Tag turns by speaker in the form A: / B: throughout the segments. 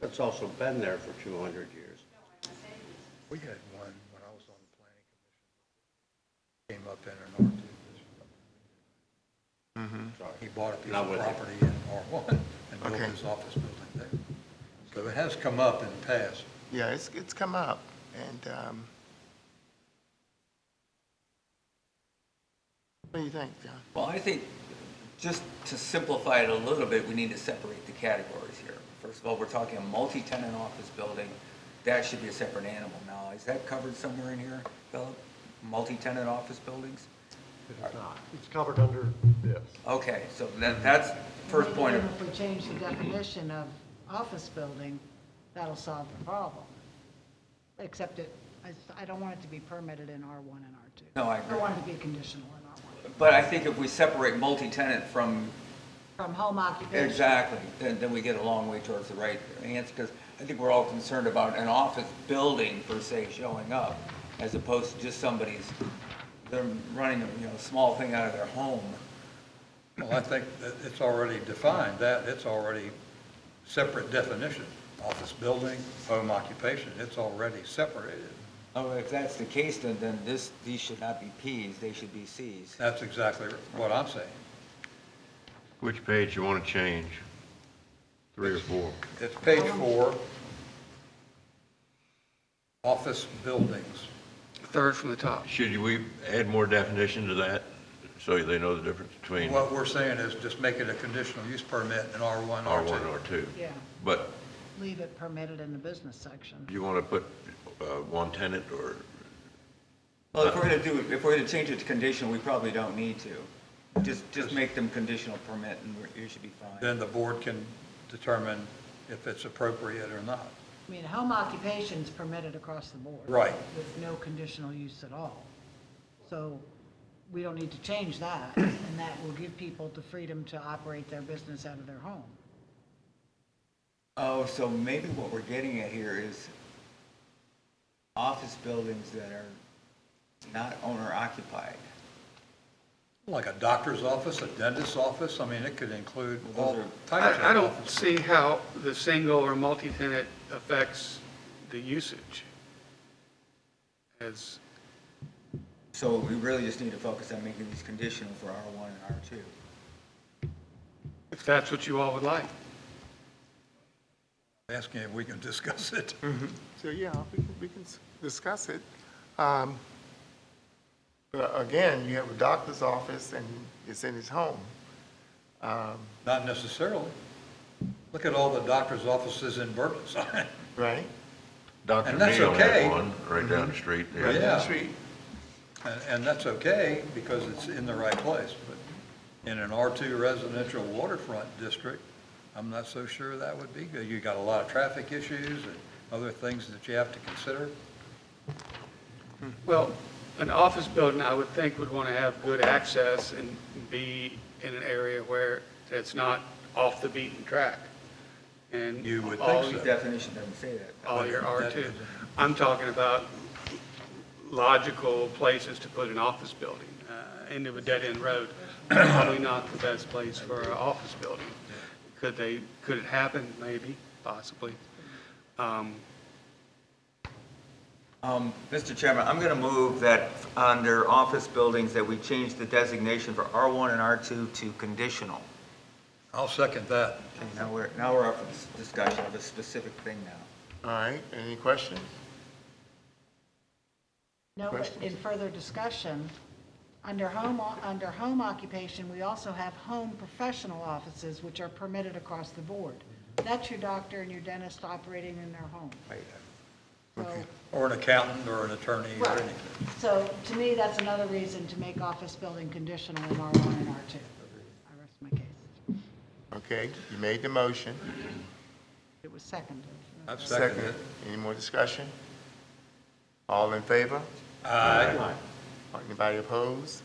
A: That's also been there for 200 years.
B: We had one when I was on the planning commission. Came up in an R two
A: Sorry.
B: He bought a
A: Mm-hmm.
B: piece
A: Not
B: of
A: with you.
B: property in R one and built
C: Okay.
B: his office building there. So it has come up in the past.
C: Yeah, it's, it's come up, and, um, what do you think, John?
D: Well, I think, just to simplify it a little bit, we need to separate the categories here. First of all, we're talking a multi-tenant office building, that should be a separate animal. Now, is that covered somewhere in here, Philip? Multi-tenant office buildings?
E: It's covered under this.
D: Okay, so that, that's first point of,
F: Even If we change the definition of office building, that'll solve the problem. Except it, I, I don't want it to be permitted in R1 and R2.
D: no, I
F: I
D: agree.
F: want it to be conditional in R1,
D: But I think if we separate multi-tenant from
F: from home occupation.
D: Exactly, then, then we get a long way towards the right answer, because I think we're all concerned about an office building per se showing up, as opposed to just somebody's, they're running, a you know, small thing out of their home.
B: Well, I think that it's already defined, that, it's already separate definition. Office building, home occupation, it's already separated.
D: Oh, if that's the case, then, then this, these should not be Ps, they should be Cs.
B: That's exactly what I'm saying.
G: Which page you want to change? Three or four?
B: It's page four. Office buildings.
C: Third from the top.
G: Should we add more definition to that, so they know the difference between R1,
B: What we're saying is just make it a conditional use permit in R1, R2.
G: R2?
F: Yeah,
G: But
F: leave it permitted in the business section.
G: you want to put uh, one tenant or,
D: Well, if we're gonna do, if we're gonna change it to conditional, we probably don't need to. Just, just make them conditional permit and we're- you should be fine.
B: Then the board can determine if it's appropriate or not.
F: I mean, home occupation's permitted across the board.
B: Right.
F: With no conditional use at all. So we don't need to change that, and that will give people the freedom to operate their business out of their home.
D: Oh, so maybe what we're getting at here is office buildings that are not owner occupied.
B: Like a doctor's office, a dentist's office, I mean, it could include all
D: Those are-
B: types of
H: I, I don't
B: offices.
H: see how the single or multi-tenant affects the usage. As,
D: So we really just need to focus on making these conditional for R1 and R2.
H: if that's what you all would like.
B: Asking if we can discuss it.
C: So, yeah, we can, we can s- discuss it. Um, But again, you have a doctor's office and it's in his home.
B: Not necessarily. Look at all the doctor's offices in Burton.
C: Right.
G: Dr.
B: And that's
G: Neal
B: okay.
G: had one right down the street.
B: Right.
G: there.
B: Yeah.
C: That's right.
B: And, and that's okay, because it's in the right place, but in an R2 residential waterfront district, I'm not so sure that would be good. You got a lot of traffic issues and other things that you have to consider.
H: Well, an office building, I would think, would want to have good access and be in an area where it's not off the beaten track. And
B: You would
H: all
B: think
D: The
B: so.
D: definition doesn't say that.
H: all your
B: That
H: R2.
B: is-
H: I'm talking about logical places to put an office building, uh, end of a dead-end road, probably not the best place for an office building. Could they, could it happen? Maybe, possibly. Um,
D: Um, Mr. Chairman, I'm going to move that under office buildings that we change the designation for R1 and R2 to conditional.
B: I'll second that.
D: Okay, Now we're, now we're up for this discussion of a specific thing now.
C: All right, any questions?
F: No, but in further discussion, under home, under home occupation, we also have home professional offices, which are permitted across the board. That's your doctor and your dentist operating in their home. So,
B: Or an accountant, or an attorney, or
F: Right.
B: anything.
F: so to me, that's another reason to make office building conditional in R1 and R2. I rest my case.
C: Okay, you made the motion.
F: It was seconded.
B: I've seconded it.
C: Any more discussion? All in favor?
B: Aye.
C: Anybody opposed?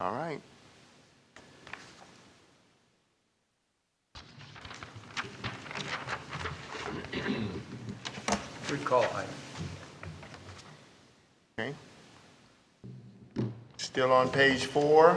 C: All right.
B: Good call, Ike.
C: Okay. Still on page four,